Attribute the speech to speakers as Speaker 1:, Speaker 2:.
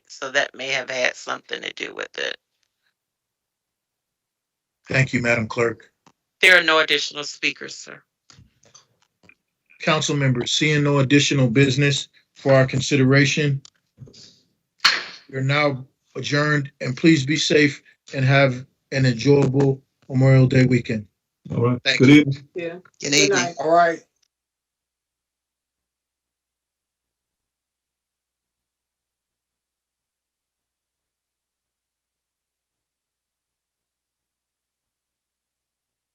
Speaker 1: So that may have had something to do with it.
Speaker 2: Thank you, Madam Clerk.
Speaker 1: There are no additional speakers, sir.
Speaker 2: Council members, seeing no additional business for our consideration, you're now adjourned, and please be safe and have an enjoyable Memorial Day weekend.
Speaker 3: All right.
Speaker 2: Thank
Speaker 3: Good evening.
Speaker 4: Yeah.
Speaker 5: Good
Speaker 4: Good
Speaker 5: evening.
Speaker 4: night.
Speaker 6: All right.